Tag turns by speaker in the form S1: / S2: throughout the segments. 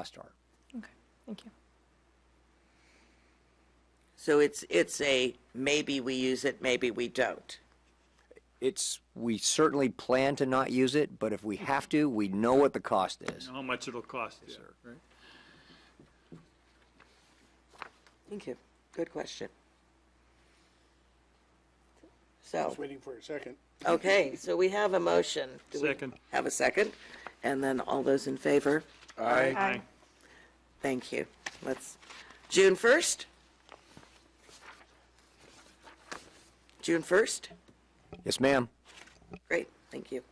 S1: costs are.
S2: Okay, thank you.
S3: So it's, it's a, maybe we use it, maybe we don't.
S1: It's, we certainly plan to not use it, but if we have to, we know what the cost is.
S4: know how much it'll cost you, right?
S3: Thank you. Good question. So,
S5: Just waiting for a second.
S3: okay, so we have a motion. Do we
S4: Second.
S3: Have a second, and then all those in favor?
S2: Aye.
S3: Thank you. Let's, June first? June first?
S1: Yes, ma'am.
S3: Great, thank you.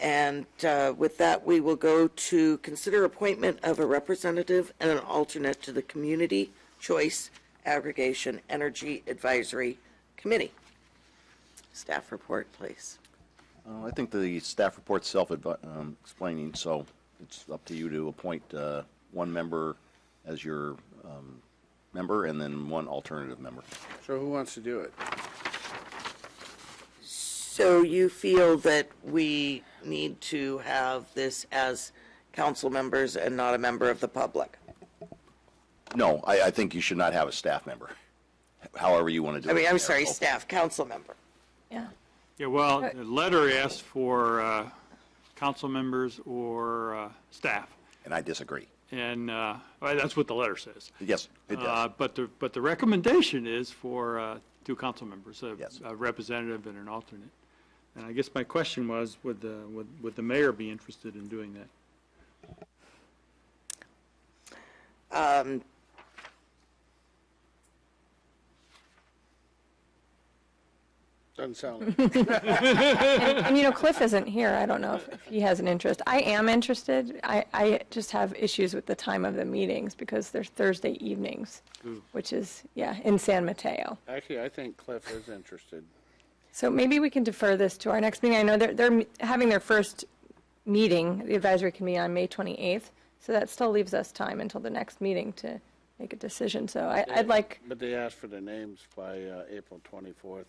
S3: And uh, with that, we will go to consider appointment of a representative and an alternate to the Community Choice Aggregation Energy Advisory Committee. Staff report, please.
S6: Uh, I think the staff report's self-explaining, so it's up to you to appoint uh, one member as your um, member and then one alternative member.
S5: So who wants to do it?
S3: So you feel that we need to have this as council members and not a member of the public?
S6: No, I, I think you should not have a staff member, however you want to do
S3: I
S6: it.
S3: mean, I'm
S6: Mayor.
S3: sorry,
S6: Oh,
S3: staff, council member.
S2: Yeah.
S4: Yeah, well, the letter asks for uh, council members or uh, staff,
S6: And I disagree.
S4: and uh, well, that's what the letter says.
S6: Yes, it
S4: Uh,
S6: does.
S4: But the, but the recommendation is for uh, two council members, a
S6: Yes.
S4: a representative and an alternate. And I guess my question was, would the, would- would the mayor be interested in doing that?
S5: Doesn't sound like.
S2: And you know, Cliff isn't here. I don't know if, if he has an interest. I am interested. I, I just have issues with the time of the meetings because they're Thursday evenings, which is, yeah, in San Mateo.
S5: Actually, I think Cliff is interested.
S2: So maybe we can defer this to our next meeting. I know they're, they're having their first meeting, the advisory committee on May 28th. So that still leaves us time until the next meeting to make a decision. So I, I'd like,
S5: But they asked for the names by uh, April 24th.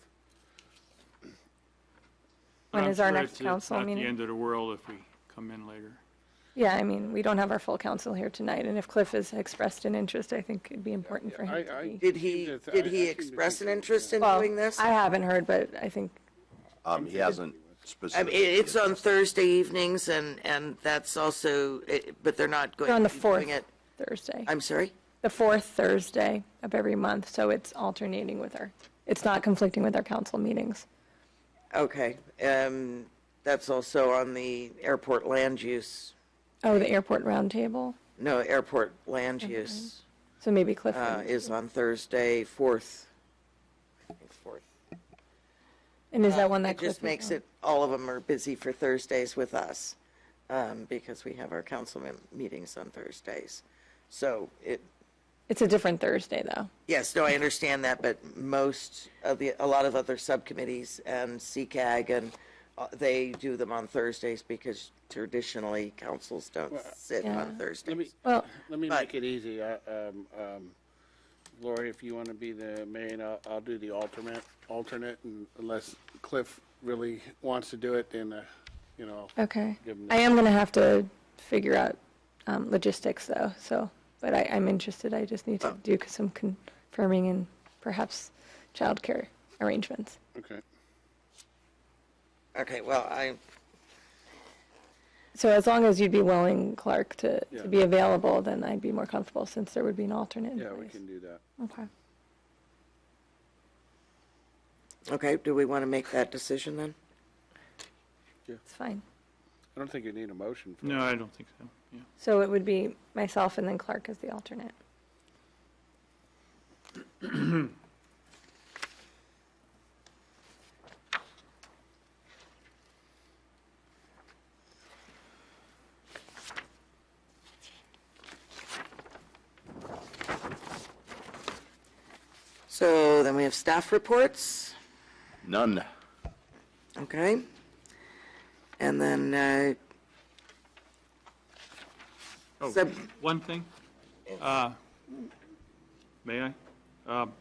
S2: when
S4: I'm
S2: is our
S4: sure
S2: next
S4: it's-
S2: council
S4: It's not the
S2: meeting?
S4: end of the world if we come in later.
S2: Yeah, I mean, we don't have our full council here tonight. And if Cliff has expressed an interest, I think it'd be important for
S5: I,
S2: him to
S5: I.
S2: be.
S3: Did he,
S5: seem to- I-
S3: did
S5: I
S3: he
S5: seem to
S3: express an
S5: think that-
S3: interest in
S2: Well,
S3: doing this?
S2: I haven't heard, but I think,
S6: Um, He
S3: I
S6: hasn't
S3: mean,
S6: specifically.
S3: it's on Thursday evenings and, and that's also, it- but they're not going
S2: on
S3: to
S2: the
S3: be doing
S2: fourth
S3: it.
S2: Thursday,
S3: I'm sorry?
S2: the fourth Thursday of every month, so it's alternating with our, it's not conflicting with our council meetings.
S3: Okay. Um, that's also on the airport land use,
S2: Oh, the airport roundtable,
S3: no, airport land
S2: Mm-hmm.
S3: use,
S2: so maybe Cliff,
S3: uh,
S2: would-
S3: is on Thursday, fourth. I think fourth.
S2: and is that one that
S3: uh, It
S2: Cliff?
S3: just
S2: would
S3: makes
S2: know?
S3: it, all of them are busy for Thursdays with us, um, because we have our council mem- meetings on Thursdays. So it,
S2: It's a different Thursday, though.
S3: Yes, no, I understand that, but most of the, a lot of other subcommittees um, and CCAG and uh, they do them on Thursdays because traditionally councils don't sit on
S2: Yeah.
S5: Let me,
S3: Thursdays.
S2: Well,
S5: let me
S3: But-
S5: make it easy. I- um, um, Lori, if you want to be the mayor, and I'll, I'll do the alternate, alternate, and unless Cliff really wants to do it, then, uh, you know,
S2: okay.
S5: Give him
S2: I am gonna have to figure out, um, logistics, though, so, but I, I'm interested. I just need
S5: Oh.
S2: to do some confirming and perhaps childcare arrangements.
S5: okay.
S3: Okay, well, I,
S2: So as long as you'd be willing, Clark, to,
S5: Yeah.
S2: to be available, then I'd be more comfortable since there would be an alternate in
S5: Yeah, we
S2: place.
S5: can do that.
S2: Okay.
S3: okay, do we want to make that decision then?
S2: It's fine.
S5: I don't think you need a motion for it.
S4: No, I don't think so, yeah.
S2: So it would be myself and then Clark as the alternate.
S3: So then we have staff reports,
S6: None.
S3: okay? And then, uh,
S4: Oh,
S3: sub-
S4: one thing? Uh, May I? Um,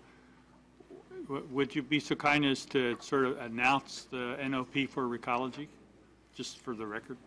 S4: w- Would you be so kind as to sort of announce the NOP for Recology, just for the record?